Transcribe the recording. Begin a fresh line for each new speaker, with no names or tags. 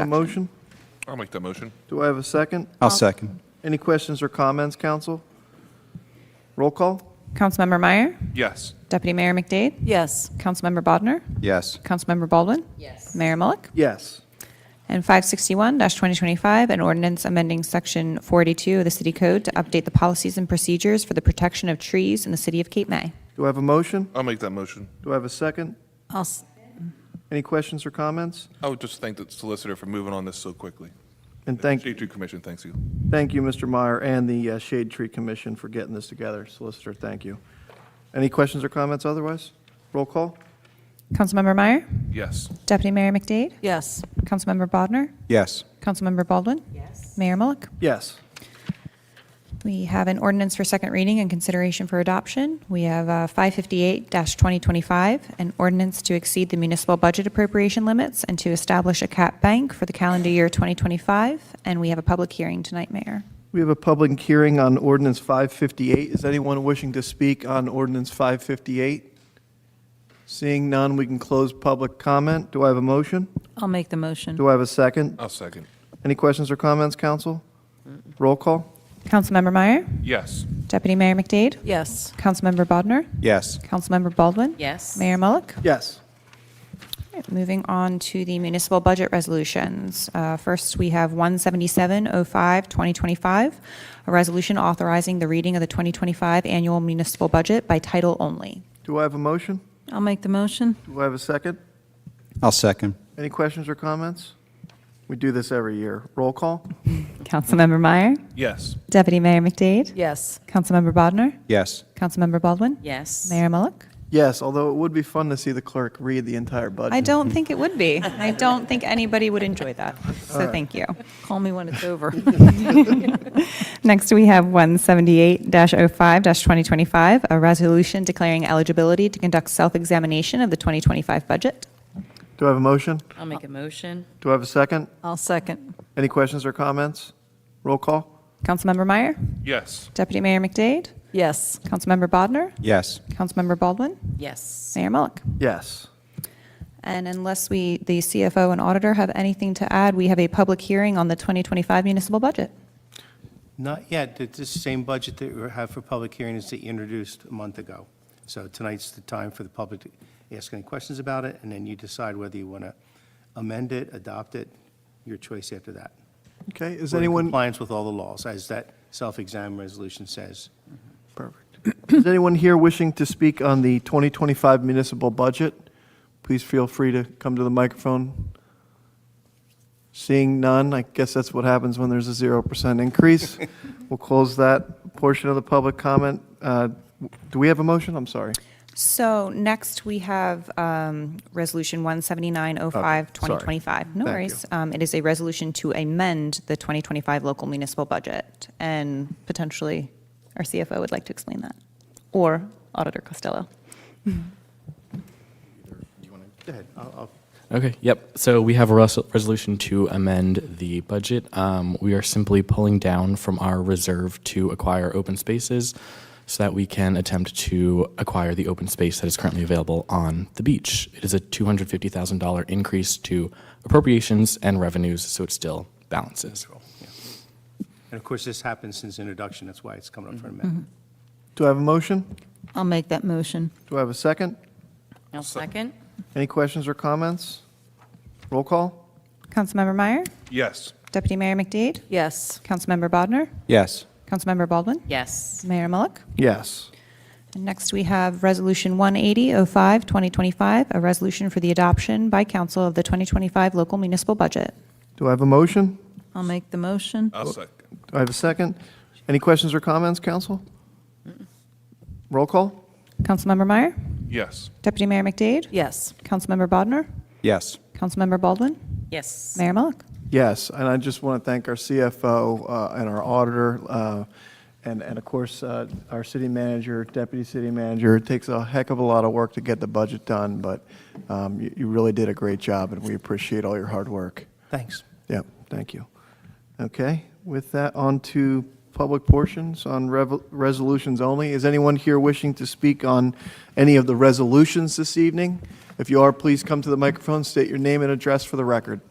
A motion?
I'll make that motion.
Do I have a second?
I'll second.
Any questions or comments, council? Roll call?
Councilmember Meyer,
Yes.
Deputy Mayor McDade,
Yes.
Councilmember Bodnar,
Yes.
Councilmember Baldwin. Yes. Mayor Mullick.
Yes.
And 561-2025, an ordinance amending Section 482 of the City Code to update the policies and procedures for the protection of trees in the city of Cape May.
Do I have a motion?
I'll make that motion.
Do I have a second?
I'll, s-
Any questions or comments?
I would just thank the solicitor for moving on this so quickly.
And thank,
Shade Tree Commission, thanks you.
thank you, Mr. Meyer, and the uh, Shade Tree Commission for getting this together. Solicitor, thank you. Any questions or comments otherwise? Roll call?
Councilmember Meyer,
Yes.
Deputy Mayor McDade,
yes.
Councilmember Bodnar,
Yes.
Councilmember Baldwin. Yes. Mayor Mullick.
Yes.
We have an ordinance for second reading and consideration for adoption. We have uh, 558-2025, an ordinance to exceed the municipal budget appropriation limits and to establish a cap bank for the calendar year 2025, and we have a public hearing tonight, Mayor.
We have a public hearing on ordinance 558. Is anyone wishing to speak on ordinance 558? Seeing none, we can close public comment. Do I have a motion?
I'll make the motion.
Do I have a second?
I'll second.
Any questions or comments, council? Roll call?
Councilmember Meyer,
Yes.
Deputy Mayor McDade,
Yes.
Councilmember Bodnar,
Yes.
Councilmember Baldwin.
Yes.
Mayor Mullick.
Yes.
All right, Moving on to the municipal budget resolutions. Uh, First, we have 17705-2025, a resolution authorizing the reading of the 2025 annual municipal budget by title only.
Do I have a motion?
I'll make the motion.
Do I have a second?
I'll second.
Any questions or comments? We do this every year. Roll call?
Councilmember Meyer?
Yes.
Deputy Mayor McDade?
Yes.
Councilmember Bodnar?
Yes.
Councilmember Baldwin?
Yes.
Mayor Mullick?
Yes, although it would be fun to see the clerk read the entire budget.
I don't think it would be. I don't think anybody would enjoy that, so thank you.
Call me when it's over.
Next, we have 178-05-2025, a resolution declaring eligibility to conduct self-examination of the 2025 budget.
Do I have a motion?
I'll make a motion.
Do I have a second?
I'll second.
Any questions or comments? Roll call?
Councilmember Meyer,
Yes.
Deputy Mayor McDade,
Yes.
Councilmember Bodnar,
Yes.
Councilmember Baldwin,
Yes.
Mayor Mullick.
Yes.
And unless we, the CFO and auditor have anything to add, we have a public hearing on the 2025 municipal budget.
Not yet. It's the same budget that we have for public hearings that you introduced a month ago. So tonight's the time for the public to ask any questions about it, and then you decide whether you want to amend it, adopt it, your choice after that.
Okay, is
We're in
anyone,
Compliance with all the laws, as that self-exam resolution says.
perfect. Is anyone here wishing to speak on the 2025 municipal budget? Please feel free to come to the microphone. Seeing none, I guess that's what happens when there's a 0% increase. We'll close that portion of the public comment. Uh, Do we have a motion? I'm sorry.
So next, we have um, Resolution 17905,
Okay, sorry.
2025. No
Thank
worries. Um, It is a resolution to amend the 2025 local municipal budget, and potentially our CFO would like to explain that, or Auditor Costello.
Go ahead. I'll- I'll
Okay, yep. So we have a res- resolution to amend the budget. Um, we are simply pulling down from our reserve to acquire open spaces so that we can attempt to acquire the open space that is currently available on the beach. It is a $250,000 increase to appropriations and revenues, so it still balances.
And of course, this happened since introduction. That's why it's coming up for amendment.
Do I have a motion?
I'll make that motion.
Do I have a second?
I'll second.
Any questions or comments? Roll call?
Councilmember Meyer,
Yes.
Deputy Mayor McDade,
Yes.
Councilmember Bodnar,
Yes.
Councilmember Baldwin,
Yes.
Mayor Mullick.
Yes.
And Next, we have Resolution 18005, 2025, a resolution for the adoption by council of the 2025 local municipal budget.
Do I have a motion?
I'll make the motion.
I'll second.
Do I have a second? Any questions or comments, council? Roll call?
Councilmember Meyer,
Yes.
Deputy Mayor McDade,
Yes.
Councilmember Bodnar,
Yes.
Councilmember Baldwin,
Yes.
Mayor Mullick.
Yes, and I just want to thank our CFO uh, and our auditor, uh, and, and of course, uh, our city manager, deputy city manager. It takes a heck of a lot of work to get the budget done, but um, you you really did a great job, and we appreciate all your hard work.
Thanks.
Yep, thank you. Okay, with that, on to public portions on rev- resolutions only. Is anyone here wishing to speak on any of the resolutions this evening? If you are, please come to the microphone, state your name and address for the record.